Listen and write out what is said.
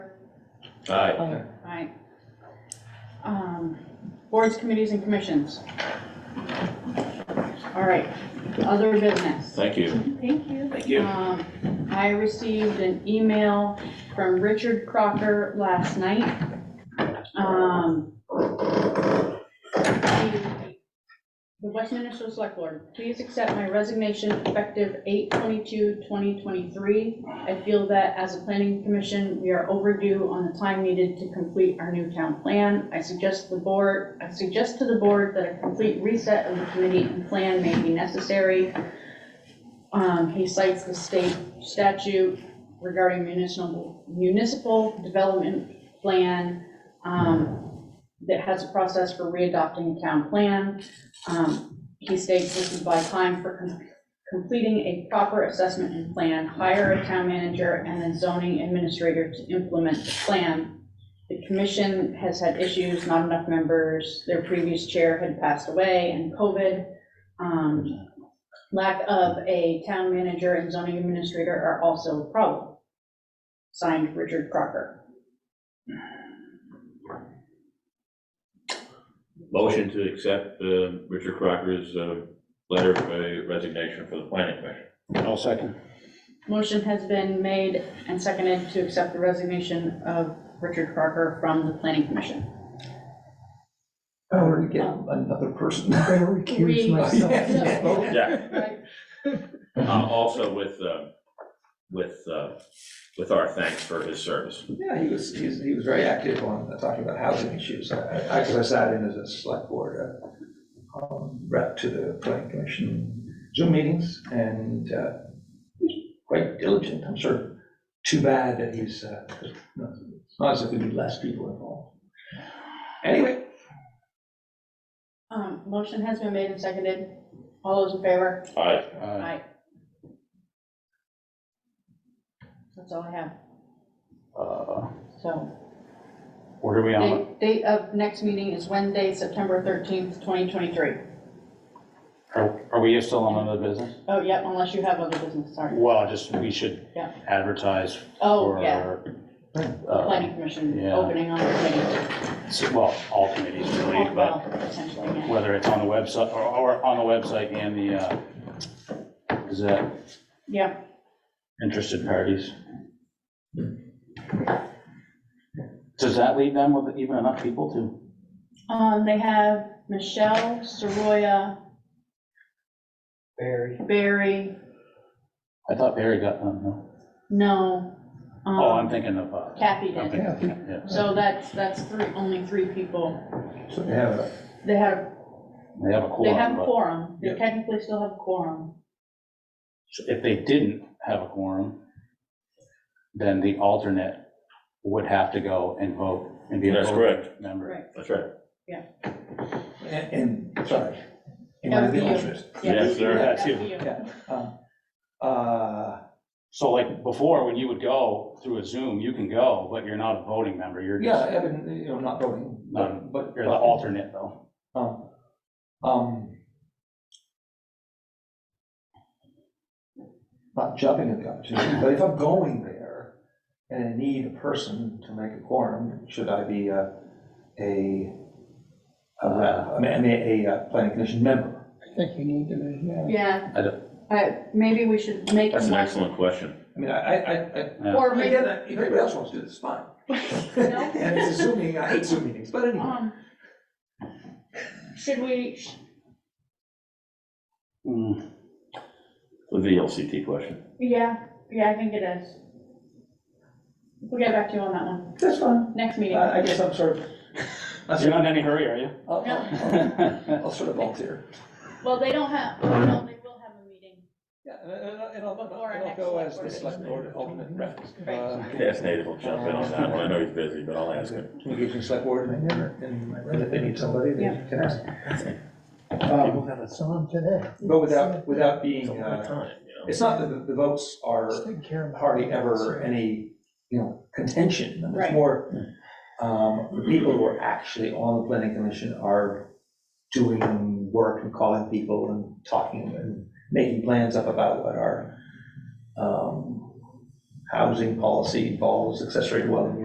Aye. Aye. Um, Boards, committees, and commissions. All right, other business. Thank you. Thank you. Thank you. Um, I received an email from Richard Crocker last night. Um, The the Westminster Select Board, please accept my resignation effective 8/22/2023. I feel that as a planning commission, we are overdue on the time needed to complete our new town plan. I suggest the board, I suggest to the board that a complete reset of the committee and plan may be necessary. Um, he cites the state statute regarding municipal, municipal development plan, um, that has a process for readopting a town plan. Um, he states this is by time for com- completing a proper assessment and plan, hire a town manager and then zoning administrator to implement the plan. The commission has had issues, not enough members, their previous chair had passed away and COVID. Um, lack of a town manager and zoning administrator are also a problem. Signed, Richard Crocker. Motion to accept uh, Richard Crocker's uh, letter of uh, resignation for the planning commission. I'll second. Motion has been made and seconded to accept the resignation of Richard Crocker from the planning commission. I wanted to get another person. I recuse We- myself. Yeah. Right. Uh, Also with, uh, with, uh, with our thanks for his service. Yeah, he was, he was, he was very active on uh, talking about housing issues. I, I, 'cause I sat in as a select board uh, um, rep to the planning commission Zoom meetings and, uh, he's quite diligent, I'm sure. Too bad that he's, uh, it's not as if we need less people involved. Anyway, Um, motion has been made and seconded. All those in favor? Aye. Aye. That's all I have, Uh, so. What are we on? Date- Date of next meeting is Wednesday, September 13th, 2023. Are are we still on other business? Oh, yep, unless you have other business, sorry. Well, just, we should Yeah. advertise Oh, for. yeah, uh, planning commission yeah. opening on the committee. s- Well, all committees really, Oh, but well, Essentially, yeah. whether it's on the website, or- or on the website and the, uh, is that Yeah, interested parties? Does that leave them with even enough people to? um, they have Michelle, Soroya, Barry. Barry, I thought Barry got them, no? no. Oh, I'm um, thinking of, uh, Kathy I'm did. thinking- Kathy. yeah, So that's, that's three, only three people. so they have a, They have, they have a they have quorum, a but quorum. They Yeah. technically still have a quorum. if they didn't have a quorum, then the alternate would have to go and vote and be a That's voting member. That's right. and, and, sorry. in That would the be you. interest. Yes, sir. Yeah, that's too. you. Yeah. um, Uh, So like before, when you would go through a Zoom, you can go, but you're not a voting member, you're Yeah, just, Evan, you know, not voting, but, Not- but. Um, you're the alternate though. Um, um, Not jumping at the opportunity, but if I'm going there and I need a person to make a quorum, should I be a, a, Uh, a, rep- I mean, a, a uh, planning commission member? I think you need to, be, yeah. Yeah. I I, maybe we should make. That's an one- excellent question. I mean, I, I, I- I, Yeah. Or I mean, maybe, again, I- if anybody else wants to do this, fine. No? And it's a Zoom meeting, I hate Zoom meetings, but anyway. um, should we, Mm, The VLCT question. Yeah, yeah, I think it is. We'll get back to you on that one, That's fine. next meeting. Uh, I, I guess I'm sort of, I'll You're sort not in any hurry, are you? of- I'll- I'll- Well, Uh, I'll sort of volunteer. Well, they don't have, no, they will have a meeting. Yeah, and- and I'll- and I'll, Or and I'll an go as excellent the select board alternate rep. Right. Uh, Yes, Nate will jump in on that one. I know he's busy, but I'll ask him. Engage in select board and then, and if they need somebody, they can ask. Um, It's on today. But without, without It's a being, lot of uh, time, you know? it's not that the- the votes are Just take care of it. hardly ever any, you know, contention. And Right. It's more, um, the people who are actually on the planning commission are doing work and calling people and talking and making plans up about what our, um, housing policy involves, accessory dwelling